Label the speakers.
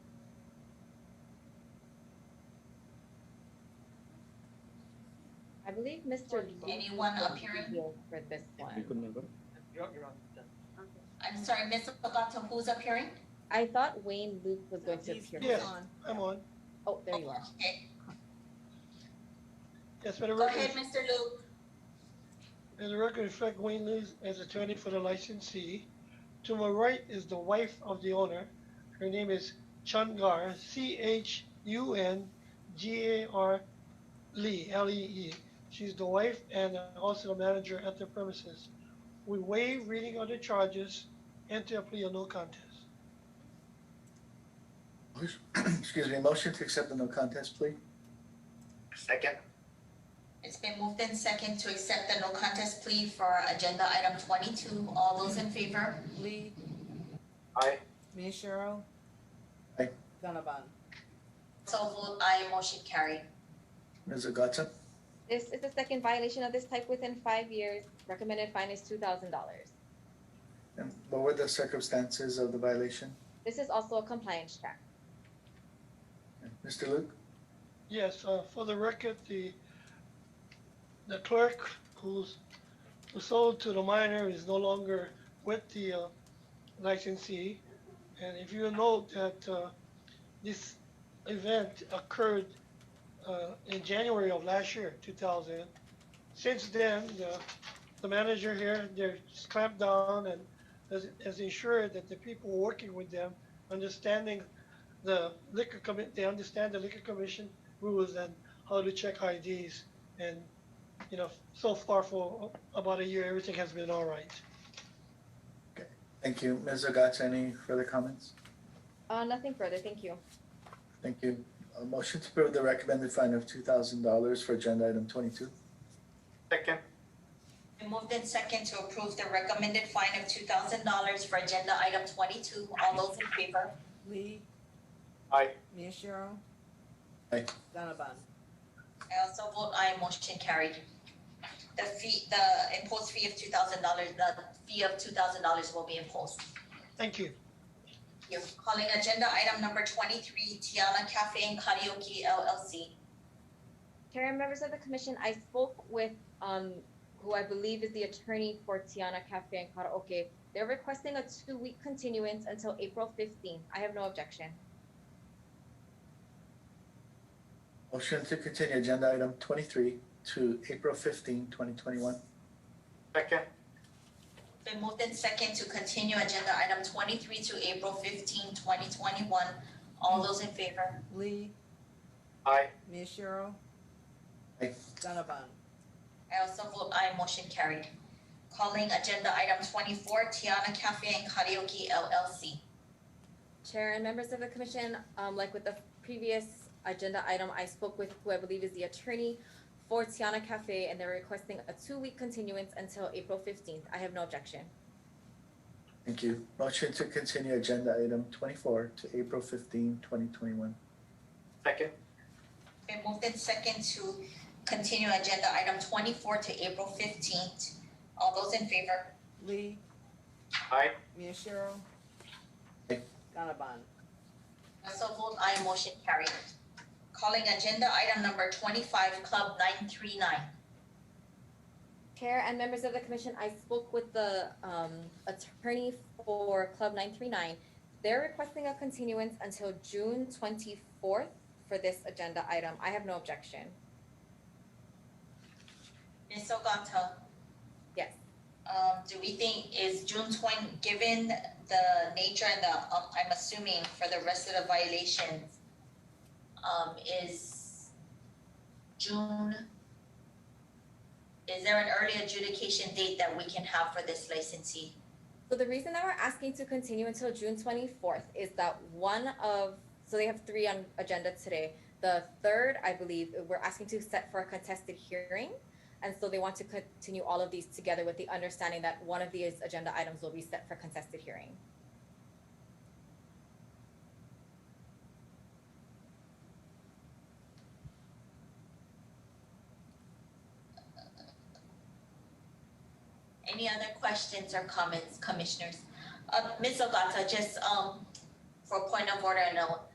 Speaker 1: I believe Mr.
Speaker 2: Anyone
Speaker 1: Lawson
Speaker 2: appearing?
Speaker 1: is here For this
Speaker 3: We
Speaker 1: one.
Speaker 3: could never.
Speaker 2: I'm sorry, Ms. Ogata, who's appearing?
Speaker 1: I thought Wayne Luke was going to
Speaker 4: He's-
Speaker 1: appear.
Speaker 4: he's
Speaker 5: Yes.
Speaker 4: on.
Speaker 5: I'm on.
Speaker 1: Oh, there you are.
Speaker 2: Okay,
Speaker 5: Yes, for the
Speaker 2: go
Speaker 5: record,
Speaker 2: ahead, Mr. Luke.
Speaker 5: for the record reflect Wayne Lewis as attorney for the licensee. To my right is the wife of the owner. Her name is Chungar, C H U N G A R Lee, L E E. She's the wife and also the manager at the premises. We waive reading of the charges, enter a plea of no contest.
Speaker 6: Excuse me, motion to accept the no contest plea?
Speaker 7: Second,
Speaker 2: It's been moved in second to accept the no contest plea for agenda item twenty-two. All those in favor?
Speaker 4: Lee,
Speaker 7: aye.
Speaker 4: Miyashiro.
Speaker 6: Aye.
Speaker 4: Gannabon.
Speaker 2: So vote aye, motion carried.
Speaker 6: Ms. Ogata?
Speaker 1: This is the second violation of this type within five years. Recommended fine is two thousand dollars.
Speaker 6: And what were the circumstances of the violation?
Speaker 1: This is also a compliance check.
Speaker 6: And Mr. Luke?
Speaker 5: Yes, uh, for the record, the, the clerk who's, who sold to the minor is no longer with the, uh, licensee. And if you note that, uh, this event occurred, uh, in January of last year, two thousand. Since then, the, the manager here, they're clamped down and has, has ensured that the people working with them, understanding the liquor commit, they understand the liquor commission rules and how to check IDs. And, you know, so far for about a year, everything has been all right.
Speaker 6: Thank you. Ms. Ogata, any further comments?
Speaker 1: Uh, nothing further. Thank you.
Speaker 6: Thank you. A motion to approve the recommended fine of two thousand dollars for agenda item twenty-two?
Speaker 7: Second,
Speaker 2: Been moved in second to approve the recommended fine of two thousand dollars for agenda item twenty-two. All those in favor?
Speaker 4: Lee.
Speaker 7: Aye.
Speaker 4: Miyashiro.
Speaker 6: Aye.
Speaker 4: Gannabon.
Speaker 2: I also vote aye, motion carried. The fee, the imposed fee of two thousand dollars, the fee of two thousand dollars will be imposed.
Speaker 5: Thank you.
Speaker 2: You're calling agenda item number twenty-three, Tiana Cafe and Karaoke LLC.
Speaker 1: Chair and members of the commission, I spoke with, um, who I believe is the attorney for Tiana Cafe and Karaoke. They're requesting a two-week continuance until April fifteenth. I have no objection.
Speaker 6: Motion to continue agenda item twenty-three to April 15, 2021.
Speaker 7: second,
Speaker 2: Been moved in second to continue agenda item twenty-three to April 15, 2021. All those in favor?
Speaker 4: Lee,
Speaker 7: aye.
Speaker 4: Miyashiro.
Speaker 6: Aye.
Speaker 4: Gannabon.
Speaker 2: I also vote aye, motion carried. Calling agenda item twenty-four, Tiana Cafe and Karaoke LLC.
Speaker 1: Chair and members of the commission, um, like with the previous agenda item, I spoke with who I believe is the attorney for Tiana Cafe, and they're requesting a two-week continuance until April fifteenth. I have no objection.
Speaker 6: Thank you. Motion to continue agenda item twenty-four to April 15, 2021.
Speaker 7: Second,
Speaker 2: Been moved in second to continue agenda item twenty-four to April fifteenth. All those in favor?
Speaker 4: Lee,
Speaker 7: aye.
Speaker 4: Miyashiro.
Speaker 6: Aye.
Speaker 4: Gannabon.
Speaker 2: I so vote aye, motion carried. Calling agenda item number twenty-five, Club nine three nine.
Speaker 1: Chair and members of the commission, I spoke with the um attorney for Club nine three nine. They're requesting a continuance until June twenty-fourth for this agenda item. I have no objection.
Speaker 2: Ms. Ogata,
Speaker 1: Yes,
Speaker 2: um, do we think is June twenty, given the nature and the, um, I'm assuming for the rest of the violations, um, is June, is there an early adjudication date that we can have for this licensee?
Speaker 1: so the reason that we're asking to continue until June twenty-fourth is that one of, so they have three on agenda today. The third, I believe, we're asking to set for a contested hearing. And so they want to continue all of these together with the understanding that one of these agenda items will be set for contested hearing.
Speaker 2: Any other questions or comments, commissioners? Uh, Ms. Ogata, just, um, for point of order, no,